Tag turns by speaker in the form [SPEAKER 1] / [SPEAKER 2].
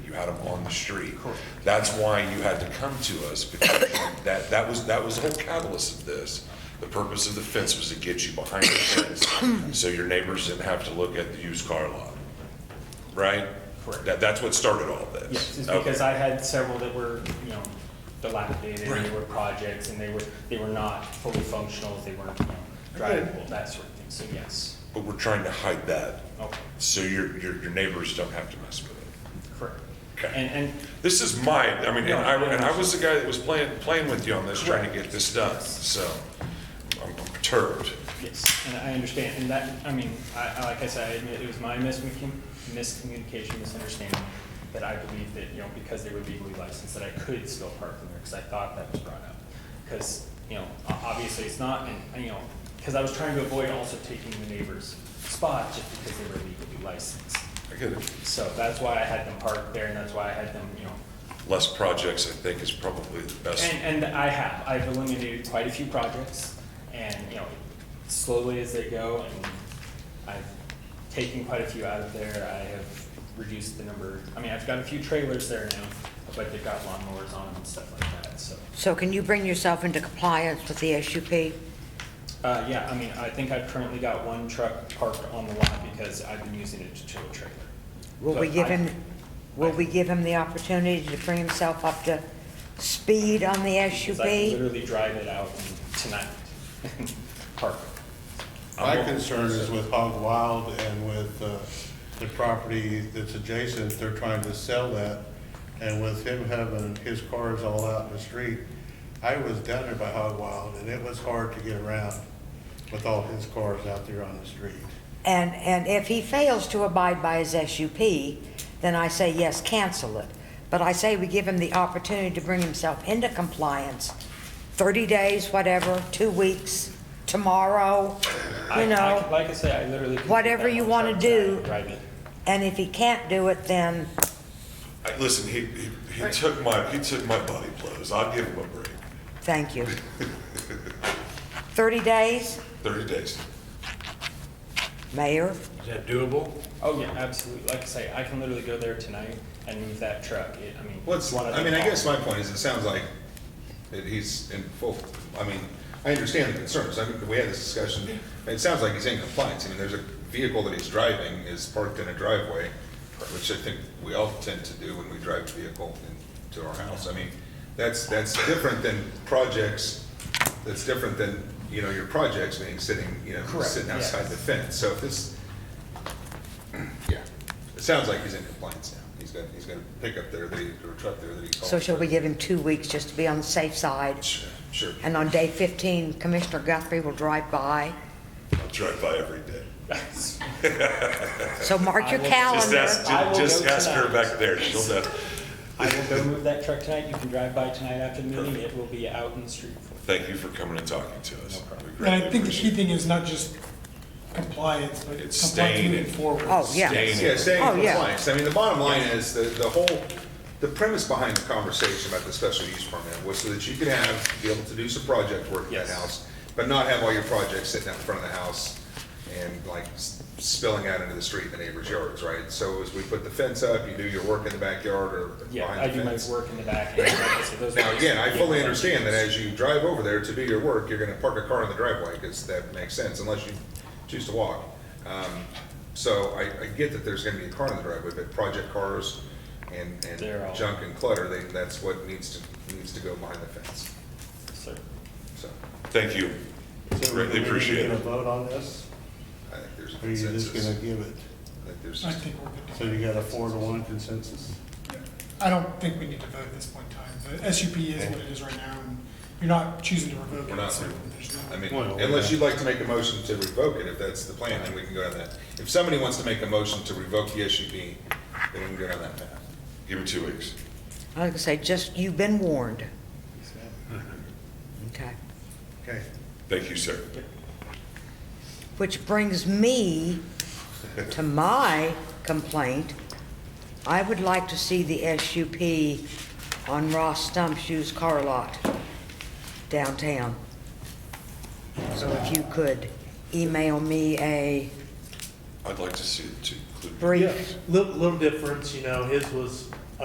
[SPEAKER 1] you had them on the street. That's why you had to come to us, because that, that was, that was the whole catalyst of this. The purpose of the fence was to get you behind the fence, so your neighbors didn't have to look at the used car lot, right?
[SPEAKER 2] Correct.
[SPEAKER 1] That, that's what started all this.
[SPEAKER 2] Yes, it's
[SPEAKER 1] Okay.
[SPEAKER 2] because I had several that were, you know, dilapidated, and
[SPEAKER 1] Right.
[SPEAKER 2] they were projects, and they were, they were not fully functional, they weren't, you know, drivable, that sort of thing, so yes.
[SPEAKER 1] But we're trying to hide that,
[SPEAKER 2] Okay,
[SPEAKER 1] so your, your, your neighbors don't have to mess with it.
[SPEAKER 2] correct.
[SPEAKER 1] Okay.
[SPEAKER 2] And, and,
[SPEAKER 1] This is my, I mean, and I, and I was the guy that was playing, playing with you on this, trying to get this done, so I'm perturbed.
[SPEAKER 2] yes, and I understand, and that, I mean, I, I- like I said, I admit it was my miscommunication, miscommunication, misunderstanding, that I believed that, you know, because they were legally licensed, that I could still park them there, because I thought that was brought up. Because, you know, o- obviously it's not, and, you know, because I was trying to avoid also taking the neighbor's spot, just because they were legally licensed.
[SPEAKER 1] I get it.
[SPEAKER 2] So that's why I had them parked there, and that's why I had them, you know,
[SPEAKER 1] Less projects, I think, is probably the best.
[SPEAKER 2] and, and I have, I've eliminated quite a few projects, and, you know, slowly as they go, and I've taken quite a few out of there, I have reduced the number, I mean, I've got a few trailers there now, but they've got lawnmowers on them and stuff like that, so.
[SPEAKER 3] So can you bring yourself into compliance with the SUP?
[SPEAKER 2] Uh, yeah, I mean, I think I've currently got one truck parked on the lot because I've been using it to tow a trailer.
[SPEAKER 3] Will we
[SPEAKER 2] But
[SPEAKER 3] give
[SPEAKER 2] I-
[SPEAKER 3] him, will we give him the opportunity to bring himself up to speed on the
[SPEAKER 2] Because I can
[SPEAKER 3] SUP?
[SPEAKER 2] literally drive it out and- tonight, and park it.
[SPEAKER 4] My concern is with Hog Wild and with uh, the property that's adjacent, they're trying to sell that. And with him having his cars all out in the street, I was down there by Hog Wild and it was hard to get around with all his cars out there on the street.
[SPEAKER 3] And, and if he fails to abide by his SUP, then I say, yes, cancel it. But I say we give him the opportunity to bring himself into compliance, 30 days, whatever, two weeks, tomorrow,
[SPEAKER 2] I-
[SPEAKER 3] you
[SPEAKER 2] I-
[SPEAKER 3] know?
[SPEAKER 2] Like I say, I literally. could
[SPEAKER 3] whatever
[SPEAKER 2] put that
[SPEAKER 3] you
[SPEAKER 2] on
[SPEAKER 3] wanna
[SPEAKER 2] truck
[SPEAKER 3] do.
[SPEAKER 2] tonight, drive it.
[SPEAKER 3] And if he can't do it, then
[SPEAKER 1] I- Listen, he, he, he took my, he took my body blows. I'll give him a break.
[SPEAKER 3] Thank you. 30 days,
[SPEAKER 1] Thirty days.
[SPEAKER 3] Mayor?
[SPEAKER 5] Is that doable?
[SPEAKER 2] Oh, yeah, absolutely. Like I say, I can literally go there tonight and move that truck. It- I mean.
[SPEAKER 6] What's,
[SPEAKER 2] one of
[SPEAKER 6] I
[SPEAKER 2] the
[SPEAKER 6] mean, I guess
[SPEAKER 2] problems-
[SPEAKER 6] my point is, it sounds like that he's in full, I mean, I understand the concerns, I mean, we had this discussion, it sounds like he's in compliance, I mean, there's a vehicle that he's driving is parked in a driveway, which I think we all tend to do when we drive a vehicle into our house, I mean, that's, that's different than projects, that's different than, you know, your projects being sitting, you know,
[SPEAKER 2] Correct,
[SPEAKER 6] sitting
[SPEAKER 2] yeah.
[SPEAKER 6] outside the fence, so if this, yeah, it sounds like he's in compliance now, he's got, he's got a pickup there, that he or a truck there that he's.
[SPEAKER 3] So shall we give him two weeks just to be on the safe side?
[SPEAKER 6] Sure, sure.
[SPEAKER 3] And on day 15, Commissioner Guthrie will drive by.
[SPEAKER 1] I'll drive by every day.
[SPEAKER 3] So mark your
[SPEAKER 2] I will-
[SPEAKER 1] Just
[SPEAKER 3] calendar.
[SPEAKER 1] ask,
[SPEAKER 2] I will
[SPEAKER 1] just
[SPEAKER 2] go
[SPEAKER 1] ask her
[SPEAKER 2] tonight.
[SPEAKER 1] back there. She'll know.
[SPEAKER 2] I will go move that truck tonight. You can drive by tonight after the meeting. It will be out in the street. for-
[SPEAKER 1] Thank you for coming and talking to us. We
[SPEAKER 7] And I
[SPEAKER 1] greatly
[SPEAKER 7] think the key
[SPEAKER 1] appreciate it.
[SPEAKER 7] thing is not just compliance, but
[SPEAKER 1] It's
[SPEAKER 7] compliance
[SPEAKER 1] staying
[SPEAKER 7] moving
[SPEAKER 1] in-
[SPEAKER 7] forward.
[SPEAKER 3] Oh, yeah.
[SPEAKER 1] Staying-
[SPEAKER 6] Yeah, staying
[SPEAKER 3] Oh,
[SPEAKER 6] in
[SPEAKER 3] yeah.
[SPEAKER 6] compliance. I mean, the bottom line is the, the whole, the premise behind the conversation about the special use permit was so that you could have, be able to do some project work in that
[SPEAKER 2] Yes.
[SPEAKER 6] house, but not have all your projects sitting out in front of the house and like s- spilling out into the street in the neighbor's yards, right? So as we put the fence up, you do your work in the backyard or
[SPEAKER 2] Yeah, I
[SPEAKER 6] behind the
[SPEAKER 2] do my
[SPEAKER 6] fence.
[SPEAKER 2] work in the back. and like I said, those
[SPEAKER 6] Now,
[SPEAKER 2] are-
[SPEAKER 6] again, I
[SPEAKER 2] yeah,
[SPEAKER 6] fully
[SPEAKER 2] like-
[SPEAKER 6] understand that as you drive over there to do your work, you're gonna park a car in the driveway, because that makes sense, unless you choose to walk. Um, So I, I get that there's gonna be a car in the driveway, but project cars and,
[SPEAKER 2] They're all-
[SPEAKER 6] and junk and clutter, they, that's what needs to, needs to go behind the fence,
[SPEAKER 2] Sir.
[SPEAKER 6] so.
[SPEAKER 1] Thank you.
[SPEAKER 4] So
[SPEAKER 1] Greatly appreciate
[SPEAKER 4] Are
[SPEAKER 1] it.
[SPEAKER 4] we gonna vote on this?
[SPEAKER 6] I think there's a
[SPEAKER 4] Or are you just
[SPEAKER 6] consensus.
[SPEAKER 4] gonna
[SPEAKER 6] I
[SPEAKER 4] give it?
[SPEAKER 6] think there's,
[SPEAKER 7] I think we're good
[SPEAKER 4] So
[SPEAKER 7] to go.
[SPEAKER 4] you got a four to one consensus?
[SPEAKER 7] I don't think we need to vote at this point in time. The SUP is what it is right now, and you're not choosing to revoke
[SPEAKER 6] We're
[SPEAKER 7] it,
[SPEAKER 6] not
[SPEAKER 7] so
[SPEAKER 6] re-
[SPEAKER 7] there's
[SPEAKER 6] I
[SPEAKER 7] no.
[SPEAKER 6] mean,
[SPEAKER 4] Well,
[SPEAKER 6] unless
[SPEAKER 4] yeah.
[SPEAKER 6] you'd like to make a motion to revoke it, if that's the plan, then we can go down that. If somebody wants to make a motion to revoke the SUP, then we can go down that path.
[SPEAKER 1] Give me two weeks.
[SPEAKER 3] I was gonna say, just, you've been warned. Okay.
[SPEAKER 4] Okay.
[SPEAKER 1] Thank you, sir.
[SPEAKER 3] Which brings me to my complaint. I would like to see the SUP on Ross Stump's used car lot downtown. So if you could email me a
[SPEAKER 1] I'd like to see it too.
[SPEAKER 3] brief,
[SPEAKER 8] Little, little difference, you know, his was